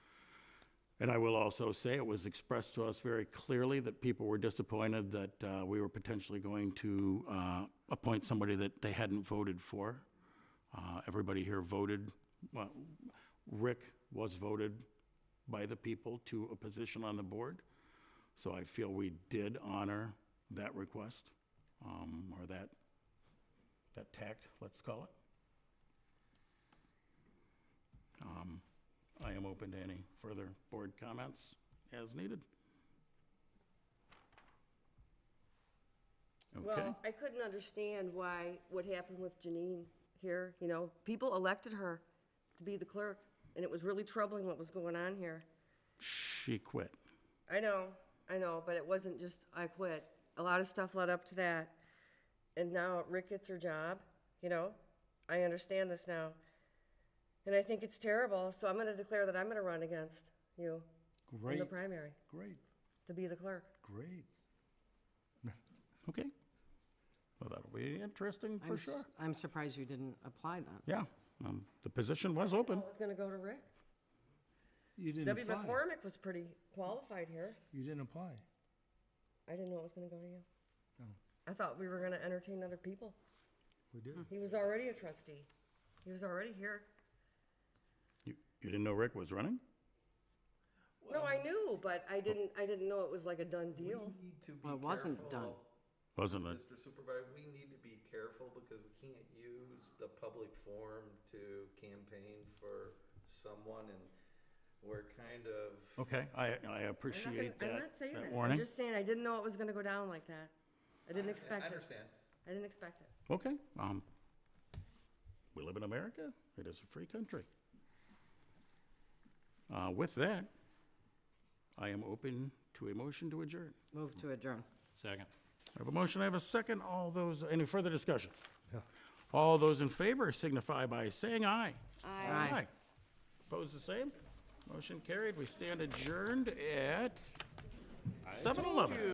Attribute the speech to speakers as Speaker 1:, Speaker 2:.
Speaker 1: And I will also say, it was expressed to us very clearly that people were disappointed that uh, we were potentially going to uh, appoint somebody that they hadn't voted for. Uh, Everybody here voted, well, Rick was voted by the people to a position on the board. So I feel we did honor that request, um, or that, that tact, let's call it. Um, I am open to any further board comments as needed. Okay,
Speaker 2: Well, I couldn't understand why, what happened with Janine here, you know, people elected her to be the clerk, and it was really troubling what was going on here.
Speaker 1: she quit.
Speaker 2: I know, I know, but it wasn't just, I quit. A lot of stuff led up to that. And now Rick gets her job, you know? I understand this now. And I think it's terrible, so I'm gonna declare that I'm gonna run against you in
Speaker 3: Great,
Speaker 2: the primary
Speaker 3: great,
Speaker 2: to be the clerk.
Speaker 3: great.
Speaker 1: Okay. Well, that'll be interesting
Speaker 4: I'm
Speaker 1: for
Speaker 4: s-
Speaker 1: sure.
Speaker 4: I'm surprised you didn't apply that.
Speaker 1: Yeah, um, the position was open.
Speaker 2: Oh, it's gonna go to Rick.
Speaker 3: You didn't
Speaker 2: Debbie
Speaker 3: apply.
Speaker 2: McCormick was pretty qualified here.
Speaker 3: You didn't apply.
Speaker 2: I didn't know it was gonna go to you.
Speaker 3: No,
Speaker 1: Oh.
Speaker 2: I thought we were gonna entertain other people.
Speaker 3: we did.
Speaker 2: He was already a trustee. He was already here.
Speaker 1: You, you didn't know Rick was running?
Speaker 2: No, I knew, but I didn't, I didn't know it was like a done deal.
Speaker 5: We need to be
Speaker 4: Well, it wasn't done.
Speaker 5: careful,
Speaker 1: Wasn't it?
Speaker 5: Mr. Supervisor, we need to be careful because we can't use the public forum to campaign for someone and we're kind of,
Speaker 1: Okay, I, I
Speaker 2: I'm not gonna-
Speaker 1: appreciate
Speaker 2: I'm
Speaker 1: that,
Speaker 2: not saying
Speaker 1: that
Speaker 2: that. I'm
Speaker 1: warning.
Speaker 2: just saying, I didn't know it was gonna go down like that. I didn't
Speaker 5: I
Speaker 2: expect it.
Speaker 5: understand.
Speaker 2: I didn't expect it.
Speaker 1: Okay, um, we live in America, it is a free country. Uh, with that, I am open to a motion to adjourn.
Speaker 4: Move to adjourn.
Speaker 6: Second.
Speaker 1: I have a motion, I have a second, all those, any further discussion? All those in favor signify by saying aye.
Speaker 4: Aye.
Speaker 1: Opposed, the same? Motion carried, we stand adjourned at seven eleven.